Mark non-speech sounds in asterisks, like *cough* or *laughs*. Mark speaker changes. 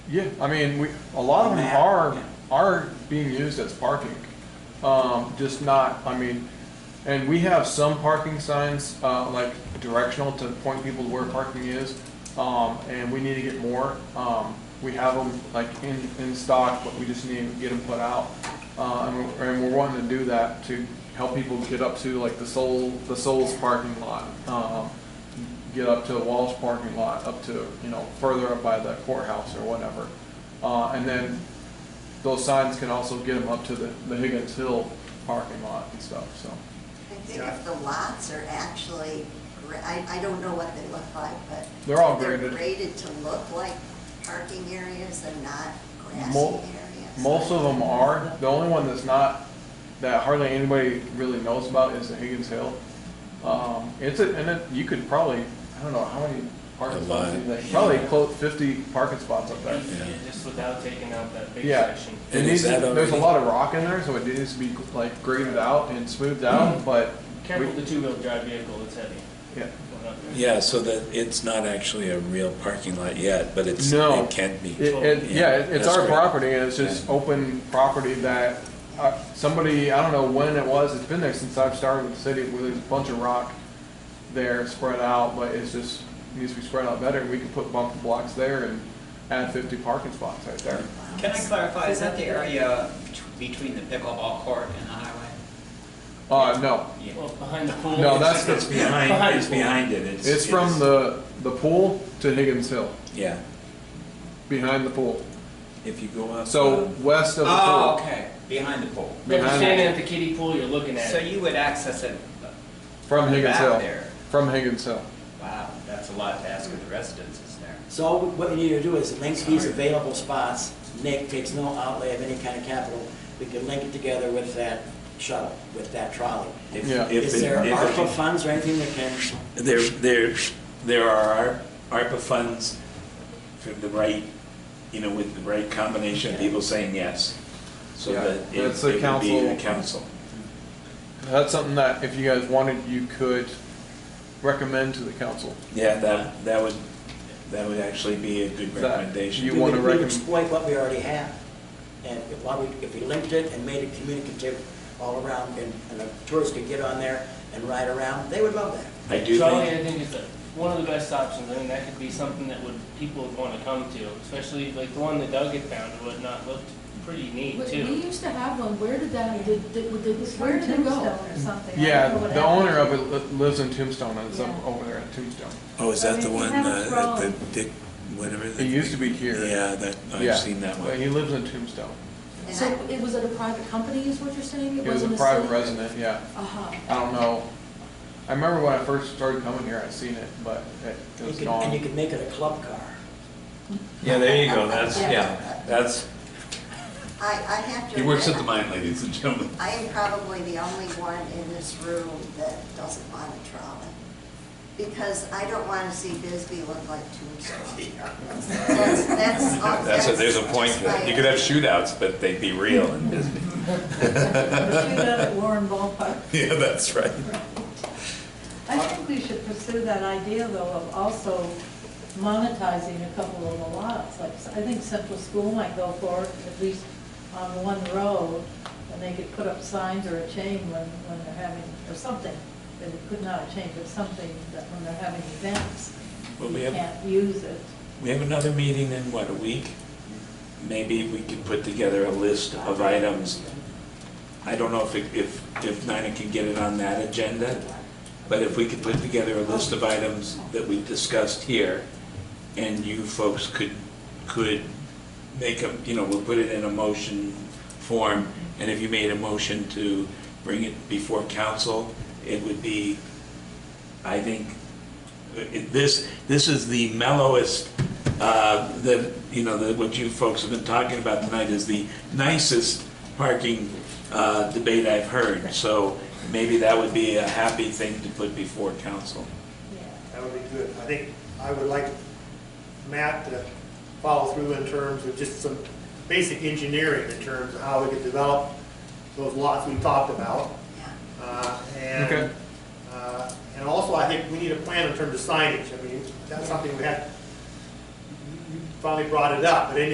Speaker 1: Yeah, I mean, we, a lot of them
Speaker 2: Map,
Speaker 1: are,
Speaker 2: yeah.
Speaker 1: are being used as parking. Um, just not, I mean, and we have some parking signs, uh, like directional to point people to where parking is. Um, and we need to get more. Um, we have them like in, in stock, but we just need to get them put out. Uh, and we're, and we're wanting to do that to help people get up to like the Soul, the Soul's parking lot. Um, get up to Walsh parking lot, up to, you know, further up by the courthouse or whatever. Uh, and then those signs can also get them up to the, the Higgins Hill parking lot and stuff, so.
Speaker 3: I think if the lots are actually, gra- I, I don't know what they look like, but.
Speaker 1: They're all
Speaker 3: if
Speaker 1: graded.
Speaker 3: graded to look like parking areas and not grassy
Speaker 1: Mo-
Speaker 3: areas.
Speaker 1: Most of them are. The only one that's not, that hardly anybody really knows about is the Higgins Hill. Um, it's a, and it, you could probably, I don't know, how many parking
Speaker 4: A
Speaker 1: spots,
Speaker 4: lot.
Speaker 1: is that? probably close fifty parking spots up there.
Speaker 4: Yeah.
Speaker 5: Just without taking out that big
Speaker 1: Yeah.
Speaker 5: section.
Speaker 1: It
Speaker 4: And
Speaker 1: needs,
Speaker 4: is that
Speaker 1: there's a
Speaker 4: already-
Speaker 1: lot of rock in there, so it needs to be like graded out and smoothed out, but
Speaker 5: Careful with
Speaker 1: we-
Speaker 5: the two-wheel drive vehicle, it's heavy.
Speaker 1: yeah.
Speaker 5: Going up there.
Speaker 4: Yeah, so that, it's not actually a real parking lot yet, but it's,
Speaker 1: No.
Speaker 4: it can be.
Speaker 1: It, it,
Speaker 4: Yeah,
Speaker 1: yeah, it- it's
Speaker 4: that's
Speaker 1: our
Speaker 4: great.
Speaker 1: property and it's just open property that, uh, somebody, I don't know when it was, it's been there since I've started with the city, where there's a bunch of rock there spread out, but it's just, needs to be spread out better. We could put bumper blocks there and add fifty parking spots right there.
Speaker 2: Can I clarify, is that the area bet- between the pickleball court and the highway?
Speaker 1: Uh, no,
Speaker 5: Well, behind the pool.
Speaker 1: No,
Speaker 5: it's-
Speaker 1: that's the-
Speaker 4: It's behind, it's behind it, it's.
Speaker 1: it's from the, the pool to Higgins Hill,
Speaker 4: Yeah,
Speaker 1: behind the pool.
Speaker 4: if you go up.
Speaker 1: So
Speaker 4: uh,
Speaker 1: west of the pool.
Speaker 2: Oh, okay, behind the pool.
Speaker 5: If you're
Speaker 1: behind-
Speaker 5: standing at the kiddie pool, you're looking at
Speaker 2: So
Speaker 5: it.
Speaker 2: you would access it,
Speaker 1: From Higgins
Speaker 2: Back
Speaker 1: Hill.
Speaker 2: there.
Speaker 1: From Higgins Hill.
Speaker 2: wow, that's a lot to ask of the residences there.
Speaker 6: So what you need to do is link these available spots, Nick takes no outlay of any kind of capital, we can link it together with that shuttle, with that trolley.
Speaker 4: if-
Speaker 1: Yeah.
Speaker 4: if
Speaker 6: Is
Speaker 4: it-
Speaker 6: there
Speaker 4: if it
Speaker 6: ARPA
Speaker 4: can-
Speaker 6: funds or anything that can,
Speaker 4: There, there, there are ARPA funds for the right, you know, with the right combination of people saying yes. So
Speaker 1: Yeah,
Speaker 4: that it it
Speaker 1: that's the
Speaker 4: would be the
Speaker 1: council.
Speaker 4: council.
Speaker 1: That's something that if you guys wanted, you could recommend to the council.
Speaker 4: Yeah, that, that would, that would actually be a good
Speaker 1: That
Speaker 4: recommendation.
Speaker 1: You
Speaker 6: we
Speaker 1: wanna
Speaker 6: would we would
Speaker 1: recommend-
Speaker 6: exploit what we already have. And if, why we- if we linked it and made it communicative all around, and, and the tourists could get on there and ride around, they would love that.
Speaker 4: I do
Speaker 5: Trolley,
Speaker 4: think,
Speaker 5: I think is the- one of the best options, I think that could be something that would, people would wanna come to, especially like the one that Doug had found, it would not looked pretty neat
Speaker 7: We
Speaker 5: too.
Speaker 7: we used to have one, where did that, did, did, did- where did it go?
Speaker 8: Tombstone or something. I
Speaker 1: Yeah,
Speaker 8: don't know what
Speaker 1: the owner of
Speaker 8: happened.
Speaker 1: it li- lives in Tombstone, and it's up
Speaker 8: Yeah.
Speaker 1: over there in Tombstone.
Speaker 4: oh, is that the
Speaker 8: I mean,
Speaker 4: one,
Speaker 8: have a
Speaker 4: uh, at
Speaker 8: trolley.
Speaker 4: the Dick, whatever? the-
Speaker 1: It used to be here.
Speaker 4: Yeah, that,
Speaker 1: Yeah,
Speaker 4: I've seen that
Speaker 1: but
Speaker 4: one.
Speaker 1: He lives in Tombstone.
Speaker 3: And
Speaker 7: So
Speaker 3: I-
Speaker 7: it was at a private company is what you're saying?
Speaker 1: He was a
Speaker 7: wasn't
Speaker 1: private
Speaker 7: city?
Speaker 1: resident, yeah. *laughs*
Speaker 7: Uh-huh.
Speaker 1: I don't know. I remember when I first started coming here, I seen it, but it it
Speaker 6: You
Speaker 1: was
Speaker 6: could- And you
Speaker 1: gone.
Speaker 6: could make it a club car.
Speaker 4: Yeah, there you go, that's,
Speaker 3: yeah,
Speaker 4: that's,
Speaker 3: I, I have to.
Speaker 4: he works at
Speaker 3: admit,
Speaker 4: the mine, ladies and gentlemen.
Speaker 3: I am probably the only one in this room that doesn't want a trolley. Because I don't want to see Bisbee look like Tombstone.
Speaker 9: *laughs*
Speaker 3: That's, that's. all-
Speaker 9: That's, a- there's a point to that. You could have
Speaker 3: that's
Speaker 9: shootouts, but they'd be real and
Speaker 4: *laughs*
Speaker 9: Disney.
Speaker 8: Pursue that at Warren Ballpark.
Speaker 9: Yeah, that's right.
Speaker 8: I think we should pursue that idea, though, of also monetizing a couple of the lots. Like, I think Central School might go for it, at least on one road, and they could put up signs or a chain when, when they're having, or something. But it could not a chain, but something that when they're having events,
Speaker 4: Well, we
Speaker 8: you
Speaker 4: have-
Speaker 8: can't use it.
Speaker 4: We have another meeting in, what, a week? Maybe we could put together a list of items. I don't know if, it- if, if Nina can get it on that agenda, but if we could put together a list of items that we discussed here, and you folks could, could make a, you know, we'll put it in a motion form, and if you made a motion to bring it before council, it would be, I think, it- this, this is the mellowest, uh, that, you know, that what you folks have been talking about tonight is the nicest parking uh, debate I've heard. So maybe that would be a happy thing to put before council.
Speaker 10: That would be good. I think I would like Matt to follow through in terms of just some basic engineering in terms of how we could develop those lots we talked about.
Speaker 3: Yeah.
Speaker 10: Uh,
Speaker 1: Okay.
Speaker 10: And, uh, and also, I think we need a plan in terms of signage. I mean, that's something we had, you you finally brought it up, but in